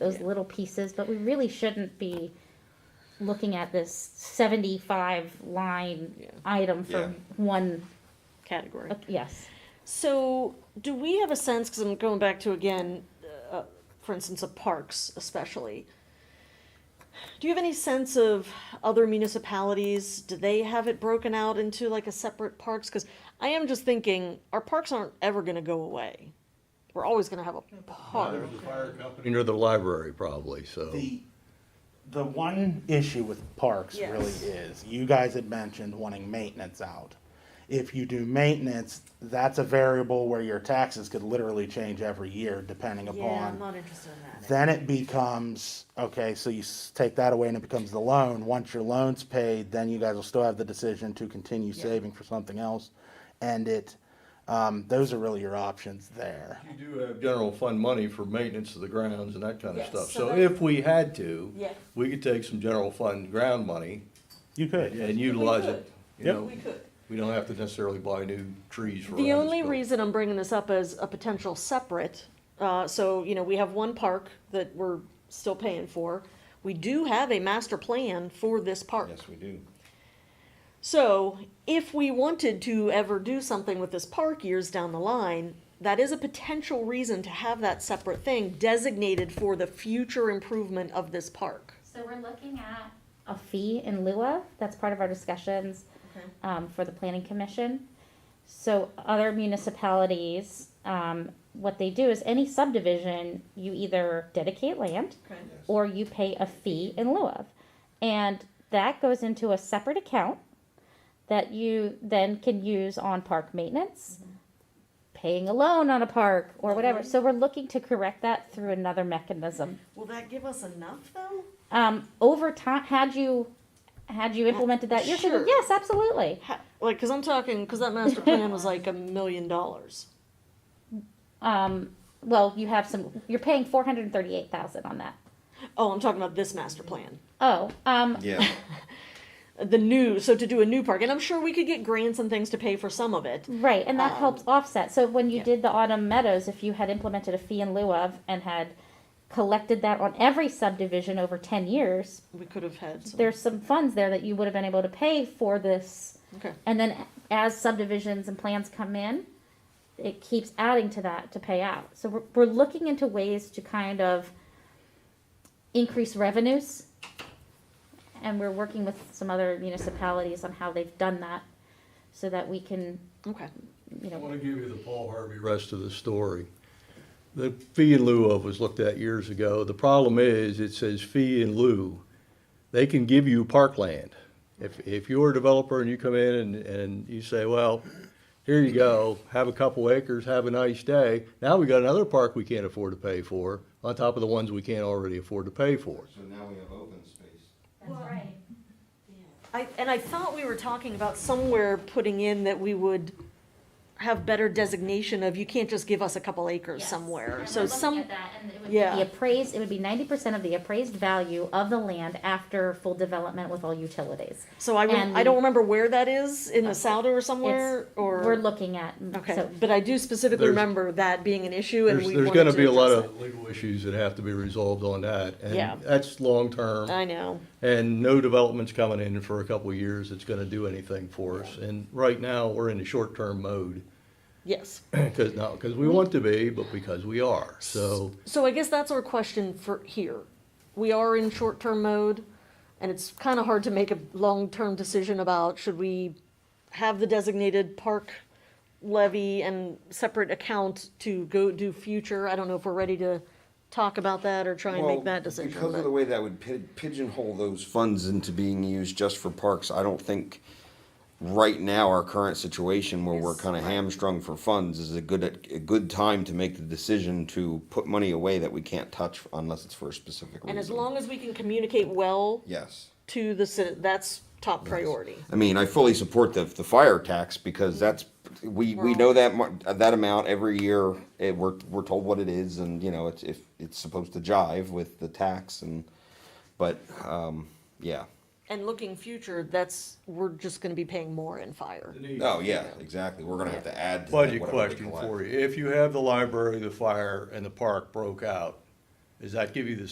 those little pieces, but we really shouldn't be looking at this seventy-five line Yeah. item for Yeah. one, category. uh, yes. So, do we have a sense, because I'm going back to again, uh, for instance, of parks especially, do you have any sense of other municipalities? Do they have it broken out into like a separate parks? Because I am just thinking, our parks aren't ever going to go away. We're always going to have a park. Neither the fire company nor the library probably, so. The, the one issue with parks Yes. really is, you guys had mentioned wanting maintenance out. If you do maintenance, that's a variable where your taxes could literally change every year depending upon. interested in Then it becomes, okay, so you s- take that away and it becomes the loan. Once your loan's paid, then you guys will still have the decision to continue saving for something else. And it, um, those are really your options there. You do have general fund money for maintenance of the grounds and that kind of Yes, stuff. so So that- if we had to, Yeah. we could take some general fund ground money You could. and utilize it. You Yep. know, could. we don't have to necessarily buy new trees for. The around this only building. reason I'm bringing this up as a potential separate, uh, so, you know, we have one park that we're still paying for. We do have a master plan for this park. Yes, we do. So if we wanted to ever do something with this park years down the line, that is a potential reason to have that separate thing designated for the future improvement of this park. So we're looking at a fee in lieu of, that's part of our discussions, um, for the planning commission. So other municipalities, um, what they do is any subdivision, you either dedicate land or you pay a fee in lieu of. And that goes into a separate account that you then can use on park maintenance, paying a loan on a park or whatever. So we're looking to correct that through another mechanism. Will that give us enough though? Um, over time, had you, had you implemented that years ago? Sure. Yes, absolutely. Ha- Like, cause I'm talking, cause that master plan was like a million dollars. Um, well, you have some, you're paying four hundred and thirty-eight thousand on that. Oh, I'm talking about this master plan. Oh, um, Yeah. the new so to do a new park and i'm sure we could get grants and things to pay for some of it Right, and that Um, helps offset. So when you yeah. did the autumn meadows, if you had implemented a fee in lieu of and had collected that on every subdivision over ten years, we could have had some there's some funds there that you would have been able to pay for this. okay And then as subdivisions and plans come in, it keeps adding to that to pay out. So we're, we're looking into ways to kind of increase revenues. And we're working with some other municipalities on how they've done that so that we can, okay you I know, want to give you the Paul Harvey rest of the story. The fee in lieu of was looked at years ago. The problem is, it says fee in lieu. They can give you parkland. If, if you're a developer and you come in and, and you say, well, here you go, have a couple acres, have a nice day. Now we got another park we can't afford to pay for, on top of the ones we can't already afford to pay for. So now we have open space. I, and i thought we were talking about somewhere putting in that we would have better designation of you can't just give us a couple acres somewhere so some Yeah. The appraised, it would be ninety percent of the appraised value of the land after full development with all utilities. so i would, and i don't remember where that is in the souder or somewhere It's- or We're looking at, okay so, but i do specifically There's- remember that being an issue and There's, we there's wanted gonna to be a lot address of legal issues that have to be resolved on that. Yeah. And that's long-term. it. i know And no development's coming in for a couple of years that's gonna do anything for us. And right now, we're in the short-term mode, yes because, not because we want to be, but because we are. So So I guess that's our question for here. We are in short-term mode, and it's kind of hard to make a long-term decision about should we have the designated park levy and separate account to go do future? I don't know if we're ready to talk about that or try and Well, make that decision. Because of but- the way that would pi- pigeonhole those funds into being used just for parks, I don't think right now, our current situation where we're kind of hamstrung for funds is a good, a good time to make the decision to put money away that we can't touch unless it's for a specific reason. And as long as we can communicate well Yes. to the, ci- that's top priority. I mean, I fully support the, the fire tax because that's, we, we know that, mar- that amount every year. It, we're, we're told what it is and, you know, it's, if, it's supposed to jive with the tax and, but, um, yeah. And looking future, that's, we're just gonna be paying more in fire. Oh, yeah, exactly. We're gonna have to add to. Budget whatever we question collect. for you. If you have the library, the fire, and the park broke out, does that give you the